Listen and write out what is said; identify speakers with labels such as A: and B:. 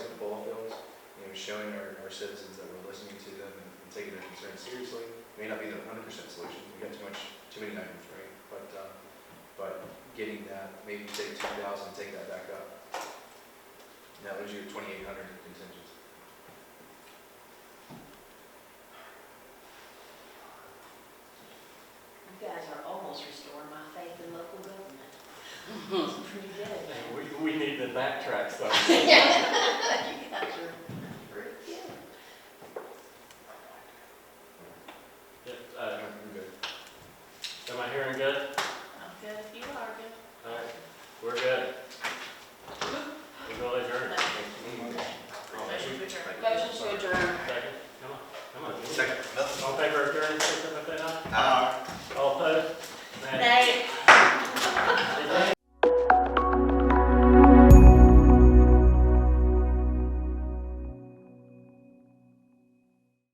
A: showing our, our citizens that we're listening to them and taking their concerns seriously. May not be the hundred percent solution, we got too much, too many items, right? But, uh, but getting that, maybe take two thousand, take that back up. And That was your twenty-eight hundred contingent.
B: You guys are almost restoring my faith in local government. It's pretty good.
C: We, we need to backtrack some.
B: Yeah.
C: uh,